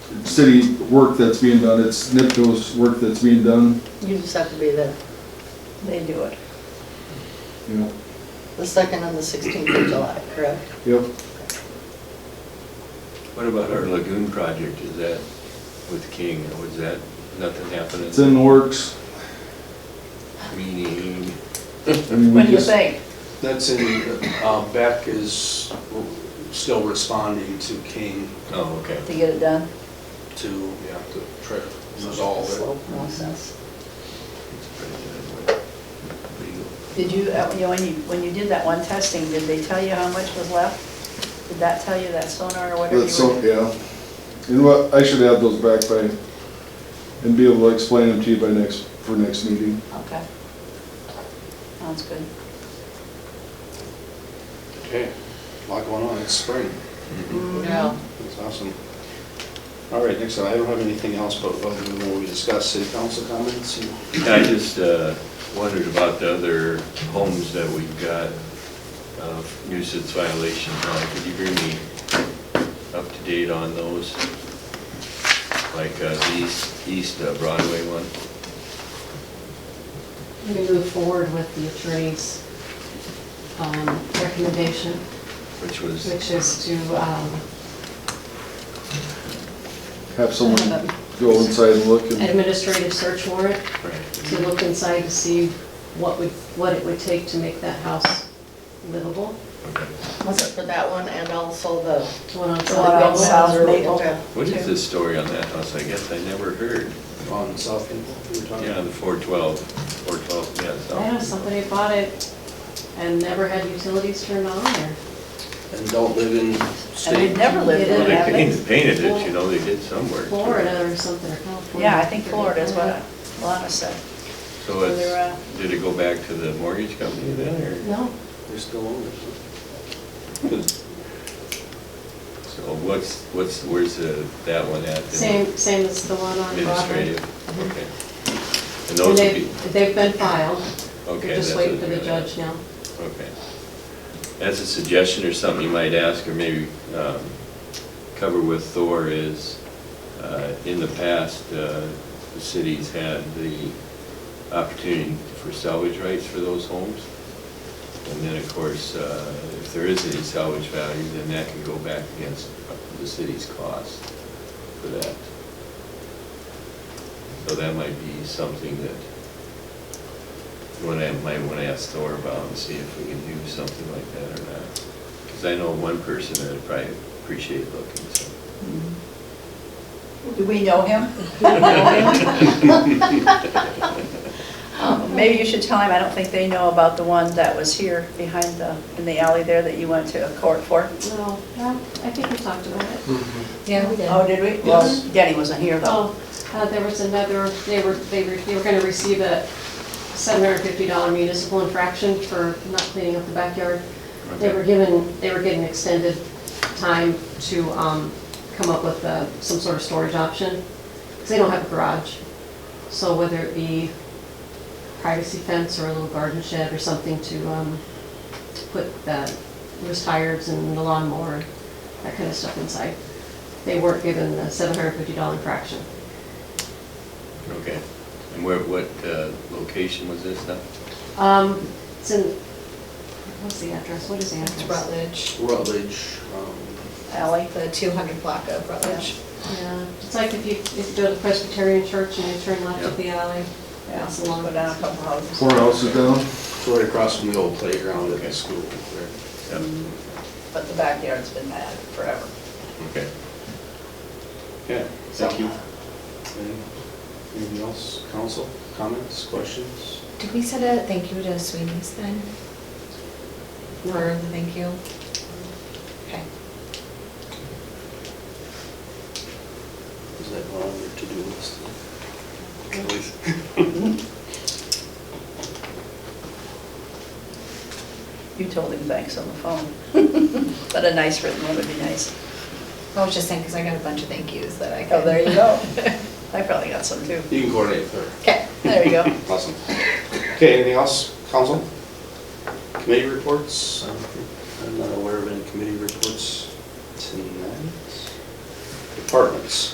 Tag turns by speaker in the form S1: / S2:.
S1: city work that's being done, it's NIPCO's work that's being done,
S2: You just have to be there. They do it.
S1: you know,
S2: The second and the sixteenth of July, correct?
S1: yep.
S3: What about our lagoon project, is that with King, or was that, nothing happening?
S1: It's in the works.
S3: Meaning,
S1: I mean, we
S4: What do you
S1: just-
S4: think?
S5: That's in, uh, Beck is still responding to King
S3: oh, okay.
S4: To get it done?
S5: to, yeah, to try to resolve
S4: Slow
S5: it.
S4: process.
S3: Legal.
S4: Did you, uh, you know, when you, when you did that one testing, did they tell you how much was left? Did that tell you that sonar or whatever
S1: That's
S4: you
S1: so,
S4: were?
S1: yeah. And what, I should have those back by, and be able to explain them to you by next, for next meeting.
S4: Okay. Sounds good.
S5: Okay, a lot going on, it's spring,
S6: Mm-hmm.
S2: Yeah.
S5: that's awesome. All right, next, I don't have anything else, but other than what we discussed, city council comments? and-
S3: I just uh, wondered about the other homes that we've got, uh, nuisance violations on. Could you bring me up to date on those? Like uh, the east, east uh, Broadway one?
S6: We move forward with the attorney's um, recommendation,
S3: Which was,
S6: which is to um,
S1: Have someone go inside and look and,
S6: administrative search warrant, to
S3: right,
S6: look inside to see what would, what it would take to make that house livable.
S3: okay.
S2: Was it for that one and also the?
S6: The one on
S4: The one on
S6: South
S4: South
S6: Maple.
S4: Maple.
S3: What is this story on that house? I guess I never heard.
S5: On South Maple, we were talking.
S3: Yeah, the 412, 412, yeah, so.
S6: Yeah, somebody bought it and never had utilities turned on there.
S5: And don't live in
S4: And they've
S5: state.
S4: never lived
S6: Well,
S3: Well,
S4: in
S3: they
S4: it, have
S3: painted-
S4: they?
S3: painted it, you know, they did somewhere.
S6: Florida or something, or California.
S4: Yeah, I think Florida is what
S2: Mm-hmm.
S4: Alana said.
S3: So
S6: uh,
S3: it's, did it go back to the mortgage company then, or?
S6: No,
S5: They're still owners.
S3: So what's, what's, where's the, that one at? the
S6: same, same as the one on Broadway.
S3: Administrative, okay. And
S6: And
S3: those would be,
S6: they've, they've been filed.
S3: okay.
S6: They're
S3: that's
S6: just waiting
S3: what
S6: for the
S3: they're
S6: judge
S3: at.
S6: now.
S3: Okay. As a suggestion or something you might ask, or maybe um, cover with Thor is, uh, in the past, uh, the city's had the opportunity for salvage rights for those homes. And then, of course, uh, if there is any salvage value, then that can go back against the city's cost for that. So that might be something that you wanna- might want to ask Thor about and see if we can do something like that or not. Because I know one person that would probably appreciate looking, so.
S4: Do we know him? Um, Maybe you should tell him, I don't think they know about the one that was here behind the, in the alley there that you went to court for.
S6: No, I think we talked about it.
S5: Mm-hmm.
S7: Yeah, we did.
S4: Oh, did we? Well, Denny wasn't here though.
S6: Oh, uh, there was another, they were, they were, they were gonna receive a seven hundred fifty dollar municipal infraction for not cleaning up the backyard. They
S3: Okay.
S6: were given, they were given extended time to, um, come up with, uh, some sort of storage option, because they don't have a garage. So whether it be privacy fence or a little garden shed or something to, um, to put the loose tires and the lawnmower, that kind of stuff inside. They weren't given the seven hundred fifty dollar infraction.
S3: Okay. And where, what uh, location was this now?
S6: Um, it's in, what's the address? What is the
S7: It's
S6: address?
S7: Rutledge,
S5: Rutledge, um,
S7: Oh.
S4: Alley.
S7: the 200 block of Rutledge.
S6: Yeah, it's like if you, if you go to the Presbyterian Church and you turn left at the alley,
S4: Yeah,
S6: that's along.
S4: go down a couple houses.
S1: four houses down.
S5: it's right across from the old playground at the school there.
S3: Yep.
S4: But the backyard's been bad forever.
S3: Okay.
S5: Okay,
S4: So-
S5: thank you. Any- Anything else, council, comments, questions?
S7: Did we send a thank you to Sweeney's then? For the thank you? Okay.
S5: Is that on your to-do list? Always.
S4: You told him thanks on the phone. But a nice written one would be nice.
S7: I was just saying, because I got a bunch of thank yous that I could.
S4: Oh, there you go. I probably got some too.
S5: You can coordinate with her.
S4: Okay, there you go.
S5: Awesome. Okay, anything else, council? Committee reports? I'm- I'm not aware of any committee reports tonight. Departments?